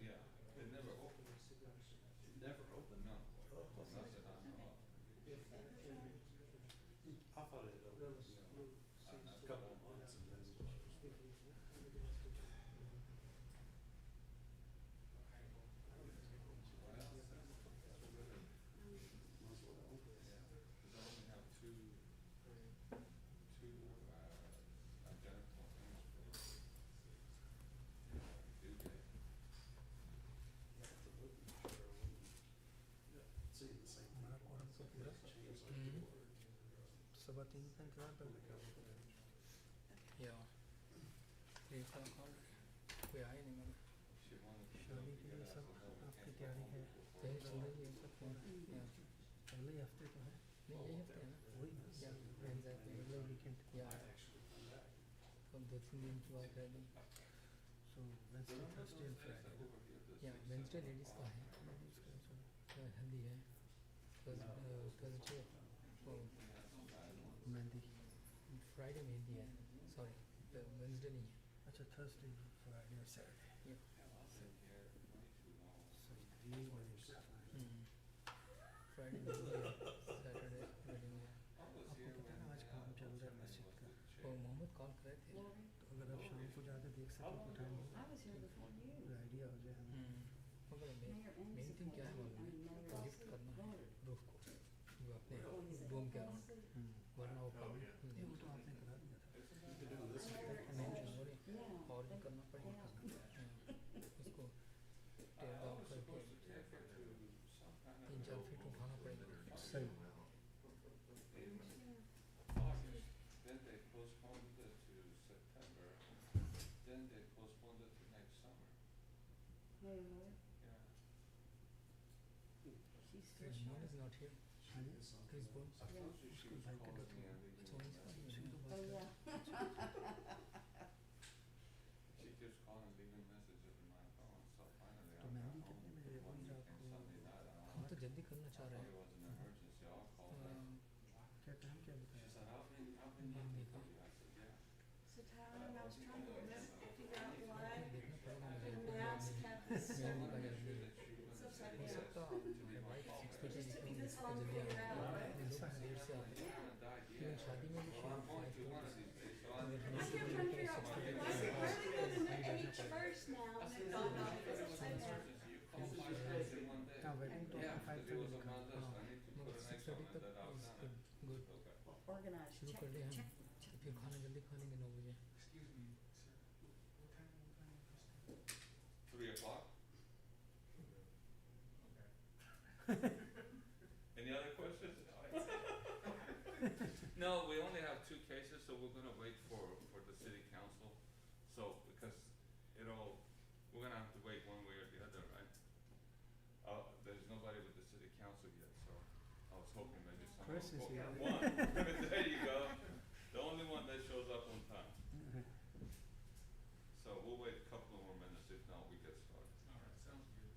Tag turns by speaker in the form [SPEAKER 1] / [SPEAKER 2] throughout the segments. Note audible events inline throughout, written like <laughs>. [SPEAKER 1] Mm-hmm. I thought it had opened, you know, a a couple of months and then.
[SPEAKER 2] Cause I only have two, two, uh, identical things for. Do that.
[SPEAKER 1] Seeing the same thing. Change like
[SPEAKER 3] Mhm.
[SPEAKER 1] the word.
[SPEAKER 4] So what do you think happened?
[SPEAKER 3] Yeah. Three o'clock already. कोई आया नहीं मगर
[SPEAKER 2] She wanted to know
[SPEAKER 4] शादी
[SPEAKER 2] if
[SPEAKER 4] के
[SPEAKER 2] you
[SPEAKER 4] लिए
[SPEAKER 2] guys
[SPEAKER 4] सब
[SPEAKER 2] would know we
[SPEAKER 4] आपकी
[SPEAKER 2] can't go
[SPEAKER 4] तैयारी
[SPEAKER 2] home
[SPEAKER 4] है
[SPEAKER 2] before it's
[SPEAKER 3] यही सुन
[SPEAKER 2] dark.
[SPEAKER 3] रही है सब फोन
[SPEAKER 5] Mm.
[SPEAKER 3] या
[SPEAKER 4] पहले ही हफ्ते तो है
[SPEAKER 3] नहीं
[SPEAKER 1] Oh,
[SPEAKER 3] यही हफ्ते ना
[SPEAKER 4] वही ना
[SPEAKER 3] Yeah, exactly.
[SPEAKER 4] पहले वीकेंड
[SPEAKER 3] या अब दो तीन दिन की बात है अभी
[SPEAKER 4] so Wednesday Thursday and Friday
[SPEAKER 2] Over here, this
[SPEAKER 3] या
[SPEAKER 2] is
[SPEAKER 3] वेंसडे
[SPEAKER 2] seven
[SPEAKER 3] लेडीज का
[SPEAKER 2] o'clock.
[SPEAKER 3] है तो हल्दी है uh, थर्सडे वो
[SPEAKER 4] मेहंदी
[SPEAKER 3] फ्राइडे मेहंदी है सॉरी वेंसडे नहीं है
[SPEAKER 4] अच्छा थर्सडे फ्राइडे और सैटरडे सो ये वाली
[SPEAKER 3] फ्राइडे मेहंदी है सैटरडे वेडिंग है
[SPEAKER 4] आपको पता है ना आज काम चल रहा है मस्जिद का
[SPEAKER 3] और मोहम्मद कॉल करे थे
[SPEAKER 4] तो अगर आप शाम को जाके देख सको तो
[SPEAKER 5] I was here before you.
[SPEAKER 4] Idea हो जाए हमें
[SPEAKER 3] हम्म, मगर main
[SPEAKER 5] Mayor Ennis
[SPEAKER 3] main thing क्या है
[SPEAKER 5] appointed,
[SPEAKER 3] मालूम
[SPEAKER 5] I mean, Mayor Ross
[SPEAKER 3] है लिफ्ट करना है
[SPEAKER 5] voted.
[SPEAKER 3] रूफ को जो अपने डोम के अराउंड वरना वो
[SPEAKER 1] Oh,
[SPEAKER 3] काम नहीं
[SPEAKER 4] वो तो
[SPEAKER 3] देगा।
[SPEAKER 4] आपने करा दिया था
[SPEAKER 1] You could do this here.
[SPEAKER 3] नहीं जो बोले,
[SPEAKER 5] Yeah.
[SPEAKER 3] और भी करना पड़ेगा हाँ, उसको टेयर डाउन करके तीन चार फीट उठाना पड़ेगा
[SPEAKER 4] सही
[SPEAKER 2] August, then they postponed it to September, then they postponed it to next summer.
[SPEAKER 5] Mayor Miller,
[SPEAKER 2] Yeah.
[SPEAKER 5] she's still
[SPEAKER 3] Mohan
[SPEAKER 5] short.
[SPEAKER 3] Is not here Chris bone
[SPEAKER 2] I told you she was calling me and leaving
[SPEAKER 3] It's always
[SPEAKER 2] me
[SPEAKER 3] fun.
[SPEAKER 2] messages.
[SPEAKER 4] उसी तो
[SPEAKER 5] Oh,
[SPEAKER 4] बात
[SPEAKER 5] yeah.
[SPEAKER 4] कर
[SPEAKER 2] She keeps calling and leaving messages on my phone, so finally I
[SPEAKER 4] तो
[SPEAKER 2] got
[SPEAKER 4] mehndi
[SPEAKER 2] home
[SPEAKER 4] कितने में है?
[SPEAKER 2] one weekend Sunday night. I
[SPEAKER 4] वही आपको
[SPEAKER 3] हम तो जल्दी करना चाह रहे
[SPEAKER 2] It
[SPEAKER 3] हैं
[SPEAKER 2] was an emergency, I'll call her.
[SPEAKER 3] अम,
[SPEAKER 4] क्या टाइम क्या
[SPEAKER 2] She
[SPEAKER 4] बताया
[SPEAKER 2] said, I've been, I've been looking for you. I said, yeah.
[SPEAKER 6] So Tyler, Um, I was trying to remember, figure out why
[SPEAKER 3] देखना पड़ेगा मुझे
[SPEAKER 6] the maps kept the same.
[SPEAKER 2] Make
[SPEAKER 3] mehndi का या
[SPEAKER 2] sure
[SPEAKER 3] नहीं
[SPEAKER 2] that she
[SPEAKER 6] Some
[SPEAKER 2] wouldn't say
[SPEAKER 6] type
[SPEAKER 3] हो
[SPEAKER 6] of-
[SPEAKER 2] yes
[SPEAKER 3] सकता
[SPEAKER 2] to
[SPEAKER 3] है
[SPEAKER 2] me
[SPEAKER 3] मेरे
[SPEAKER 2] by
[SPEAKER 3] भाई
[SPEAKER 2] call
[SPEAKER 3] सिक्स
[SPEAKER 2] back.
[SPEAKER 3] बजे
[SPEAKER 6] Just took me
[SPEAKER 3] निकलेंगे
[SPEAKER 6] this long to
[SPEAKER 3] उसको जल्दी
[SPEAKER 6] figure it
[SPEAKER 3] आना
[SPEAKER 6] out,
[SPEAKER 3] होगा
[SPEAKER 6] right?
[SPEAKER 3] हम लोग
[SPEAKER 4] ऐसा है।
[SPEAKER 3] देर से आते हैं
[SPEAKER 2] I'm gonna die,
[SPEAKER 3] even
[SPEAKER 2] yeah.
[SPEAKER 3] शादी में भी
[SPEAKER 2] Well, I'm
[SPEAKER 3] शाम
[SPEAKER 2] going to
[SPEAKER 3] को
[SPEAKER 2] one of these days, so
[SPEAKER 3] I
[SPEAKER 2] I'm.
[SPEAKER 3] kept
[SPEAKER 6] I kept trying to figure out why, why is it, where do they go to the H first now? And it dawned on me,
[SPEAKER 2] It
[SPEAKER 6] because I
[SPEAKER 2] was an
[SPEAKER 6] said that.
[SPEAKER 2] emergency. You called five times in one day.
[SPEAKER 4] क्या wedding तो
[SPEAKER 2] Yeah,
[SPEAKER 4] आपका five
[SPEAKER 2] because it was on
[SPEAKER 4] का
[SPEAKER 2] my list. I need to put an extra one that
[SPEAKER 3] मगर six thirty तक
[SPEAKER 2] I've
[SPEAKER 3] is
[SPEAKER 2] done it.
[SPEAKER 3] Good good
[SPEAKER 2] Okay.
[SPEAKER 5] Organized,
[SPEAKER 3] शुरू
[SPEAKER 5] check,
[SPEAKER 3] कर दिया
[SPEAKER 5] check.
[SPEAKER 3] हम तो फिर खाना जल्दी खा लेंगे नौ बजे
[SPEAKER 2] Three o'clock? Any other questions? No, we only have two cases, so we're gonna wait for, for the city council. So, because it'll, we're gonna have to wait one way or the other, right? Uh, there's nobody with the city council yet, so I was hoping maybe someone
[SPEAKER 4] Chris is
[SPEAKER 2] will
[SPEAKER 4] here.
[SPEAKER 2] One,
[SPEAKER 4] <laughs>
[SPEAKER 2] <laughs> there you go. The only one that shows up on time.
[SPEAKER 4] Mm-hmm.
[SPEAKER 2] So we'll wait a couple of more minutes, if not, we get started. Alright, sounds good.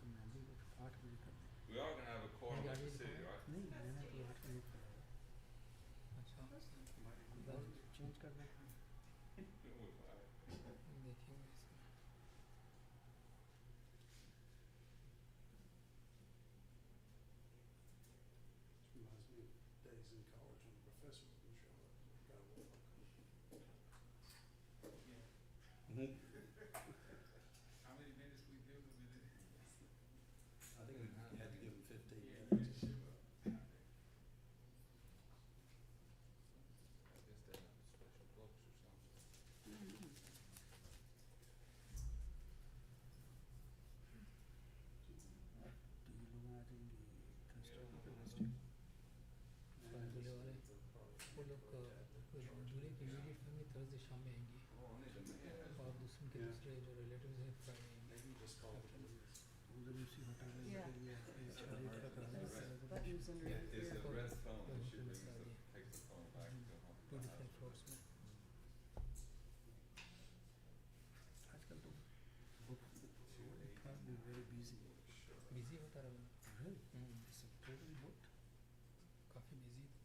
[SPEAKER 4] तो मेहंदी को तो आठ बजे कर दें
[SPEAKER 2] We are gonna have a quorum at the city, right?
[SPEAKER 4] नहीं मैंने तो आठ बजे कराया
[SPEAKER 3] अच्छा
[SPEAKER 4] और चेंज कर दें
[SPEAKER 2] Yeah, we- alright.
[SPEAKER 3] देखेंगे इसमें।
[SPEAKER 1] Reminds me of days in college when the professor would show up. Got a walk.
[SPEAKER 2] How many minutes we give them in it?
[SPEAKER 1] I think we had to give him fifteen
[SPEAKER 2] Yeah.
[SPEAKER 1] minutes.
[SPEAKER 2] I guess they have special books or something.
[SPEAKER 4] तो ये लोग आ जाएंगे Thursday
[SPEAKER 2] Yeah.
[SPEAKER 4] और Wednesday
[SPEAKER 3] दूल्हे वाले वो लोग अ, दूल्हे की इमीडिएट फैमिली थर्सडे शाम में आएंगी
[SPEAKER 2] Oh, only the mayor.
[SPEAKER 3] और दूसरे के
[SPEAKER 1] Yeah.
[SPEAKER 3] दूसरे जो रिलेटिव्स हैं फ्राइडे आएंगे
[SPEAKER 1] Maybe just call it.
[SPEAKER 4] उधर उसी होटल में
[SPEAKER 5] Yeah.
[SPEAKER 4] ये शादी का कराना
[SPEAKER 5] Those
[SPEAKER 2] Right.
[SPEAKER 4] है
[SPEAKER 5] buttons under
[SPEAKER 3] Yeah,
[SPEAKER 5] it.
[SPEAKER 2] It's the
[SPEAKER 3] Yeah.
[SPEAKER 2] red phone,
[SPEAKER 3] Yeah.
[SPEAKER 2] she brings the,
[SPEAKER 3] Yeah.
[SPEAKER 2] takes the phone back to home.
[SPEAKER 3] Two different floors में
[SPEAKER 4] आजकल तो book probably very busy.
[SPEAKER 2] Sure.
[SPEAKER 3] Busy होता रहा
[SPEAKER 4] Really?
[SPEAKER 3] Hmm,
[SPEAKER 4] It's a totally booked.
[SPEAKER 3] काफी busy